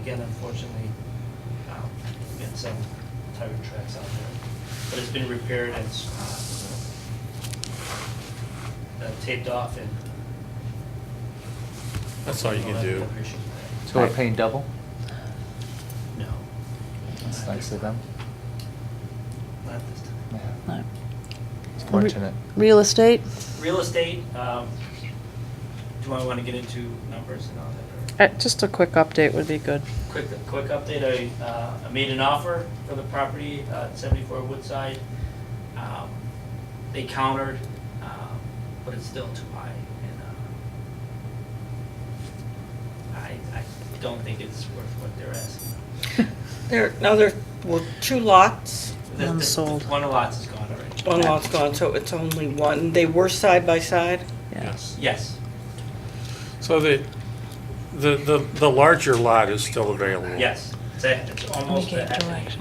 again, unfortunately, um, we had some tire tracks out there. But it's been repaired and it's uh, taped off and. That's all you can I do. Appreciate So we're paying double? that. No. That's nice of them. Not this time. Yeah, No. It's fortunate. Real estate? Real estate, um, do I want to get into numbers and all that? or- Uh, Just a quick update would be good. Quick, quick update, I, uh, I made an offer for the property uh, at seventy-four Woodside. Um, They countered, um, but it's still too high, and, uh, I, I don't think it's worth what they're asking. There, now there were two lots, The- the- One sold. One of the lots is gone already. one lot's gone, so it's only one. They were side by side? Yes. Yes, So the, the, the, the larger lot is still available. yes, it's, a- it's almost a half acre.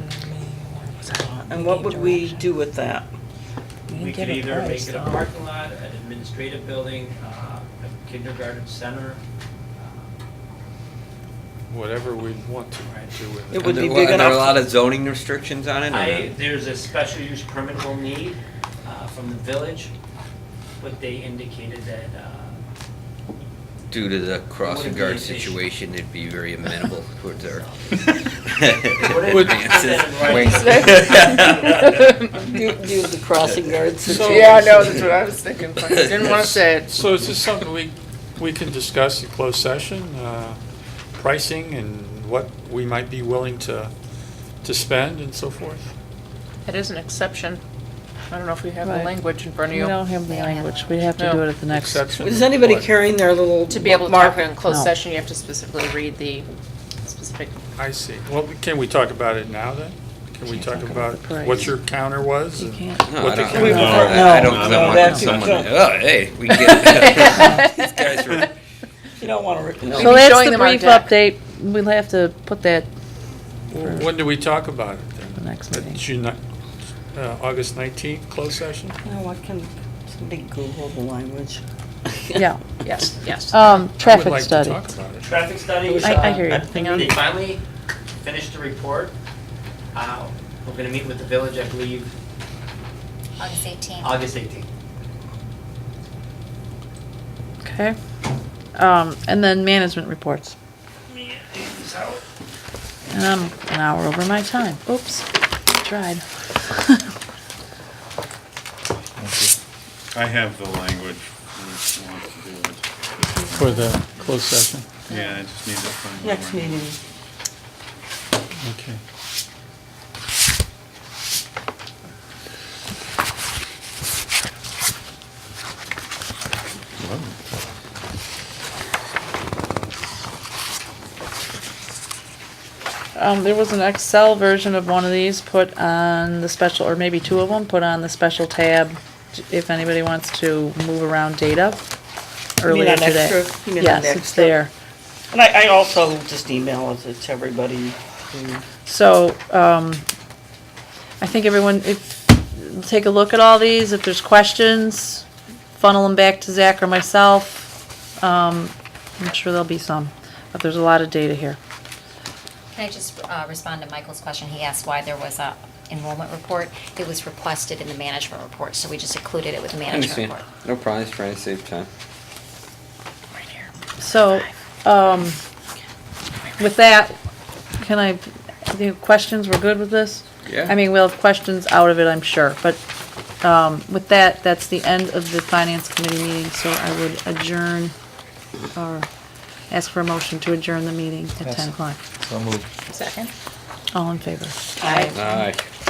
And what would we do with that? We could either make it a parking lot, an administrative building, uh, a kindergarten center. uh, Whatever we want to do with It it. would be And there- big and There are a enough- lot of zoning restrictions on it? or I, not? there's a special use permit will need uh, from the village, but they indicated that, uh, Due to the crossing Wouldn't be an guard issue. situation, it'd be very amenable towards our. wouldn't put that in writing. Wink. Do, do the crossing guards. So- Yeah, I know, that's what I was thinking. but I Didn't want to say it. So is this something we, we can discuss in closed session, uh, pricing and what we might be willing to, to spend and so forth? It is an exception. I don't know if we have the Right. language in front of We you. don't have the language, we have to do it at the next. Exception? Is anybody What? carrying their little To be able to talk marker? in closed No. session, you have to specifically read the specific, I see. Well, can we talk about it now then? Can we Can't talk talk about about the price. what your counter was? You and can't. No, what I the don't, counter- We- no, no, I don't, no, I don't want that's- someone, no. to- oh, hey, we get it. These guys are- You don't want to rip it No. up. So be that's showing the them our brief deck. update, we'll have to put that Well, When do we talk about it then? The next At meeting. June, ni- uh, August 19th, closed session? No, I can, somebody Google the language. Yeah, yes, yes. um, traffic I study. would like to talk about it. Traffic study. I- I hear you. uh, Hang on. They finally finished the report. Uh, We're gonna meet with the village, I believe, August 18th. August 18th. Okay. Um, and then management reports. And I'm an hour over my time. Oops, tried. I have the language if you want to do it. For the closed session, Yeah, I just need to find. the Next language. meeting. okay. Um, there was an Excel version of one of these put on the special, or maybe two of them, put on the special tab if anybody wants to move around data You mean earlier on today. extra? You mean on Yes, it's extra? there. And I, I also just email it to everybody who So, um, I think everyone, if, take a look at all these, if there's questions, funnel them back to Zach or myself. Um, I'm sure there'll be some, but there's a lot of data here. Can I just uh, respond to Michael's question? He asked why there was a enrollment report. It was requested in the management report, so we just included it with the I understand. management report. No problem, just trying to save time. Right here. So, um, with that, can I, the questions, we're good with this? Yeah. I mean, we'll have questions out of it, I'm sure, but, um, with that, that's the end of the finance committee meeting, so I would adjourn or ask for a motion to adjourn the meeting at Yes. ten o'clock. So moved. Second? All in favor? Aye.